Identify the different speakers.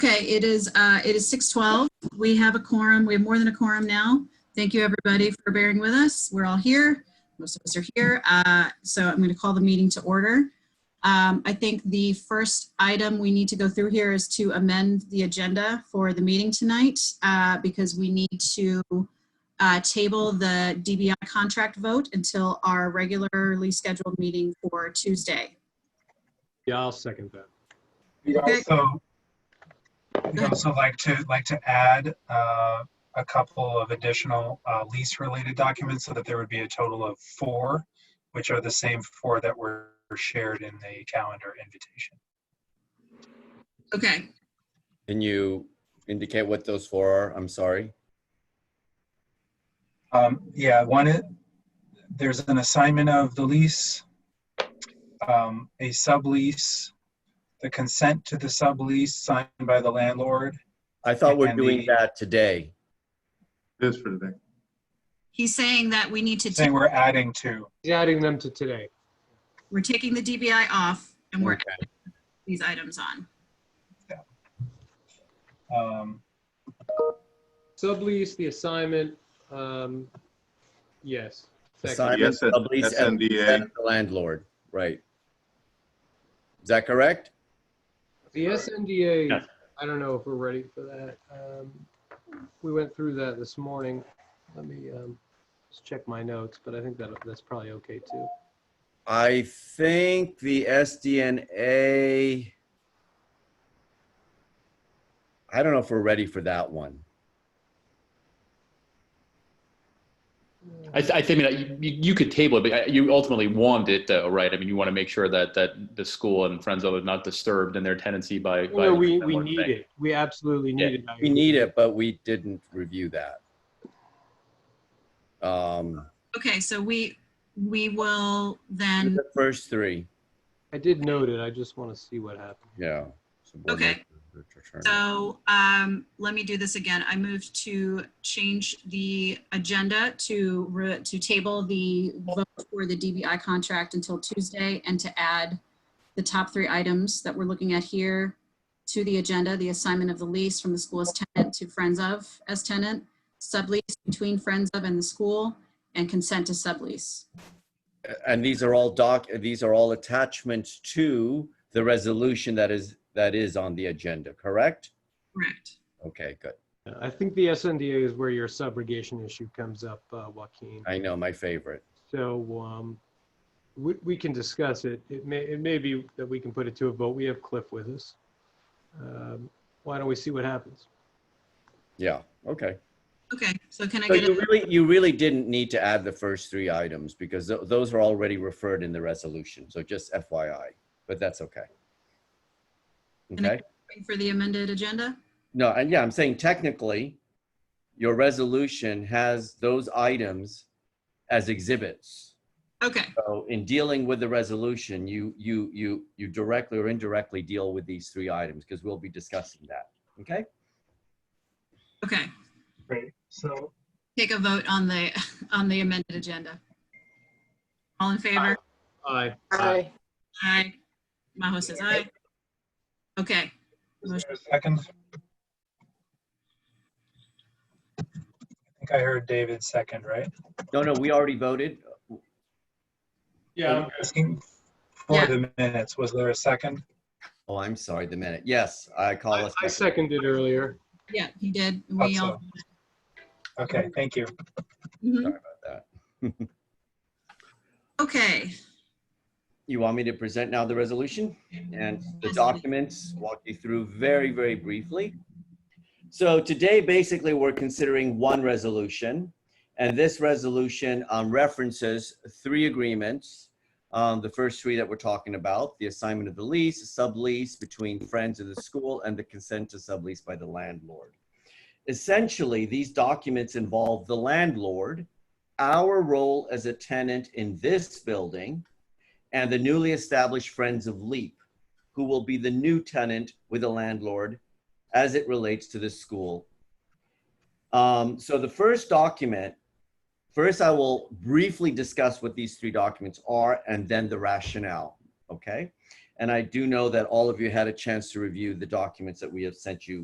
Speaker 1: Okay, it is, uh, it is 6:12. We have a quorum. We have more than a quorum now. Thank you, everybody, for bearing with us. We're all here. Most of us are here. Uh, So I'm going to call the meeting to order. Um, I think the first item we need to go through here is to amend the agenda for the meeting tonight uh, because we need to uh, table the DBI contract vote until our regularly scheduled meeting for Tuesday.
Speaker 2: Yeah, I'll second that.
Speaker 3: We'd
Speaker 1: Okay.
Speaker 3: also, we'd
Speaker 1: ahead.
Speaker 3: also like to, like to add uh, a couple of additional uh, lease-related documents so that there would be a total of four, which are the same four that were shared in the calendar invitation.
Speaker 1: Okay,
Speaker 4: Can you indicate what those four are? I'm sorry.
Speaker 3: Um, Yeah, one, is- there's an assignment of the lease, um, a sublease, the consent to the sublease signed by the landlord.
Speaker 4: I thought we're
Speaker 3: And the-
Speaker 4: doing that today.
Speaker 5: It is for today.
Speaker 1: he's saying that we need to.
Speaker 3: Saying we're adding to,
Speaker 2: He's adding them to today.
Speaker 1: We're taking the DBI off and we're
Speaker 4: Okay.
Speaker 1: adding these items on.
Speaker 3: um,
Speaker 2: Sublease, the assignment, um, yes. Second.
Speaker 4: Assignment,
Speaker 5: Yes, that-
Speaker 4: sublease,
Speaker 5: that's
Speaker 4: and
Speaker 5: NDA.
Speaker 4: the landlord, right. Is that correct?
Speaker 2: The SNDA, I don't know if we're ready for that. Um, We went through that this morning. Let me, um, just check my notes, but I think that, that's probably okay too.
Speaker 4: I think the SDNA. I don't know if we're ready for that one.
Speaker 6: I, th- I think I mean, you, you could table it, but I- you ultimately want it, though, right? I mean, you want to make sure that that the school and friends of it are not disturbed in their tenancy by. by
Speaker 2: No, we, we
Speaker 6: landlord
Speaker 2: need
Speaker 6: thing.
Speaker 2: it. We absolutely need
Speaker 6: Yeah,
Speaker 2: it. I agree.
Speaker 4: We need it, but we didn't review that. Um,
Speaker 1: Okay, so we, we will then,
Speaker 4: the first three,
Speaker 2: I did note it. I just want to see what happened.
Speaker 4: yeah.
Speaker 1: Okay. so um, let me do this again. I move to change the agenda to, re- to table the vote for the DBI contract until Tuesday and to add the top three items that we're looking at here to the agenda, the assignment of the lease from the school as tenant to friends of as tenant, sublease between friends of and the school, and consent to sublease.
Speaker 4: and these are all doc these are all attachments to the resolution that is that is on the agenda correct
Speaker 1: Correct.
Speaker 4: okay good
Speaker 2: I think the SNDA is where your subrogation issue comes up, uh, Joaquin.
Speaker 4: i know my favorite
Speaker 2: So um, we, we can discuss it. It may, it may be that we can put it to a vote. We have Cliff with us. Um, Why don't we see what happens?
Speaker 4: yeah okay
Speaker 1: Okay, so can I
Speaker 4: so
Speaker 1: get
Speaker 4: you
Speaker 1: a,
Speaker 4: really you really didn't need to add the first three items because tho- those are already referred in the resolution so just fyi but that's okay
Speaker 1: I-
Speaker 4: okay
Speaker 1: for the amended agenda?
Speaker 4: no and yeah i'm saying technically your resolution has those items as exhibits
Speaker 1: Okay,
Speaker 4: So in dealing with the resolution, you, you, you, you directly or indirectly deal with these three items because we'll be discussing that. Okay?
Speaker 1: okay.
Speaker 3: Great, so
Speaker 1: Take a vote on the, on the amended agenda. All in favor?
Speaker 2: Aye.
Speaker 7: Aye.
Speaker 1: Aye. Maho says aye. Okay,
Speaker 3: Is there a second? I think I heard David second, right?
Speaker 4: No, no, we already voted.
Speaker 2: Yeah.
Speaker 3: Asking For the minutes, was there a second?
Speaker 4: Oh, I'm sorry, the minute. Yes, I call
Speaker 2: I
Speaker 4: us.
Speaker 2: I seconded earlier.
Speaker 1: yeah, he did. We all,
Speaker 3: Thought Okay, thank you.
Speaker 1: Mhm.
Speaker 4: that.
Speaker 1: okay,
Speaker 4: You want me to present now the resolution and the documents, walk you through very, very briefly. So today, basically, we're considering one resolution. And this resolution um, references three agreements. Um, The first three that we're talking about, the assignment of the lease, sublease between friends of the school, and the consent to sublease by the landlord. Essentially, these documents involve the landlord, our role as a tenant in this building, and the newly established Friends of Leap, who will be the new tenant with the landlord as it relates to the school. Um, so the first document, first I will briefly discuss what these three documents are and then the rationale, okay? And I do know that all of you had a chance to review the documents that we have sent you